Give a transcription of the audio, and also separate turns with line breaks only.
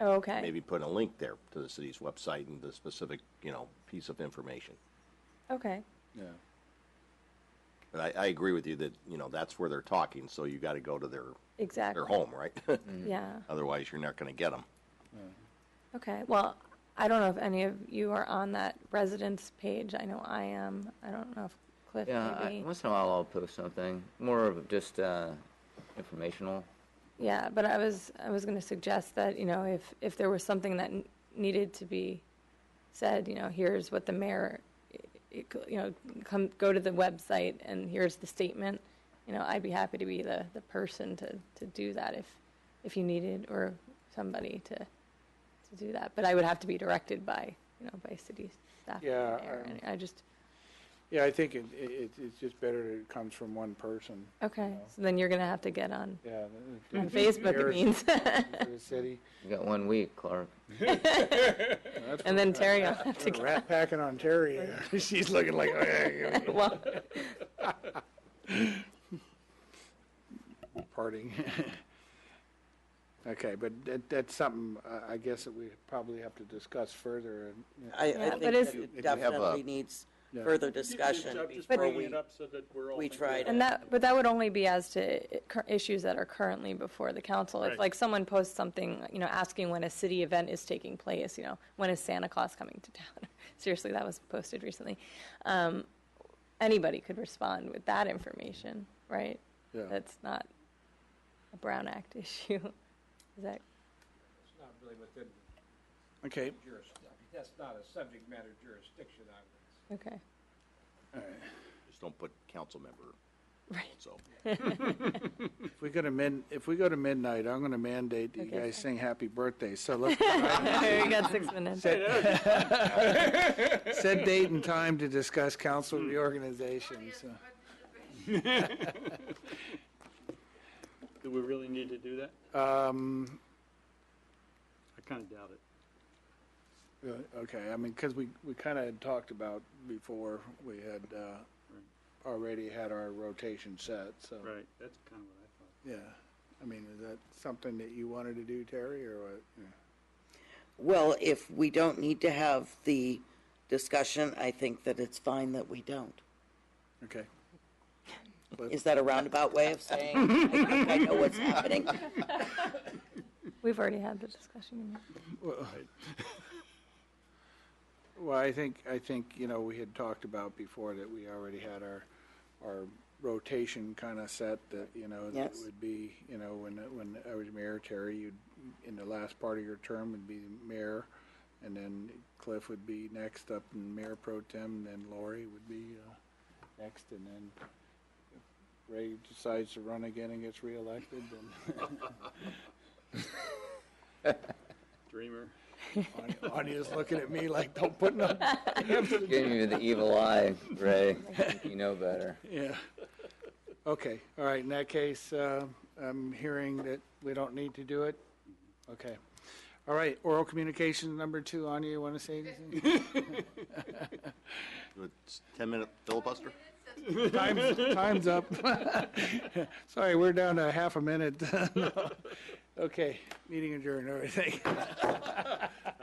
Oh, Okay.
maybe put a link there to the city's website and the specific, you know, piece of information.
Okay.
Yeah.
But I, I agree with you that, you know, that's where they're talking, so you gotta go to their,
Exactly.
their home, right?
Yeah.
Otherwise, you're not gonna get them.
Okay. Well, I don't know if any of you are on that residence page. I know I am. I don't know if Cliff
Yeah, I,
maybe.
once in a while I'll post something more of just uh, informational.
Yeah, but I was I was going to suggest that you know if if there was something that n- needed to be said, you know, here's what the mayor, it- it co- you know, come go to the website and here's the statement. You know, I'd be happy to be the the person to to do that if if you needed or somebody to to do that. But I would have to be directed by you know by city staff. and
Yeah,
mayor,
um,
and I just
Yeah, I think it, it, it- it's just better that it comes from one person,
okay.
know.
So then you're going to have to get on
yeah. the-
on
the-
Facebook. It
Terrorist
means,
for the city.
You got one week, Clark.
That's
and then Terry will have to
what Rat pack in Ontario. She's looking like, "Eh,
get well.
you're parting. Okay, but that, that's something, uh, I, I guess that we probably have to discuss further and.
I,
Yeah,
I
but
think
is-
If
it
you have
definitely
a-
needs
Yeah.
further
Just-
discussion
I'm just
before
bringing
we,
it up so that we're all
we
thinking
try
about
to-
And that, but that would only be as to i- cur- issues that are currently before the council. If
Right.
like someone posts something, you know, asking when a city event is taking place, you know, when is Santa Claus coming to town? Seriously, that was posted recently. Um, anybody could respond with that information, right?
Yeah.
That's not a Brown Act issue. Is that,
It's not really within
Okay,
jurisdiction, that's not a subject matter jurisdiction, I would say.
okay,
Just don't put council member,
right.
so.
if we go to mid, if we go to midnight, I'm gonna mandate that you
Okay.
guys sing happy birthday, so let's
You got six minutes.
set date and time to discuss council reorganization, so.
Do we really need to do that?
Um,
I kind of doubt it.
uh, okay, I mean, because we, we kind of had talked about before, we had, uh, already had our rotation set, so.
Right, that's kind of what I thought.
Yeah, I mean, is that something that you wanted to do, Terry, or what? Yeah.
well, if we don't need to have the discussion, I think that it's fine that we don't.
Okay.
Is that a roundabout way of saying, I think I know what's happening?
We've already had the discussion.
Well, Well, I think, I think, you know, we had talked about before that we already had our, our rotation kind of set that, you know, that
Yes.
would be, you know, when, when I was mayor, Terry, you'd, in the last part of your term would be mayor, and then Cliff would be next up, and Mayor Pro Tem, and then Lori would be, uh, next, and then if Ray decides to run again and gets reelected, then
Dreamer.
Anya- Anya's looking at me like, don't put no
Giving you the evil eye, Ray. you know better.
Yeah. Okay, all right, in that case, uh, I'm hearing that we don't need to do it? Okay. All right, oral communication number two, Anya, you want to say anything?
It's ten-minute filibuster?
Time's time's up. Sorry, we're down to half a minute. Okay, meeting adjourned, all right, thank you.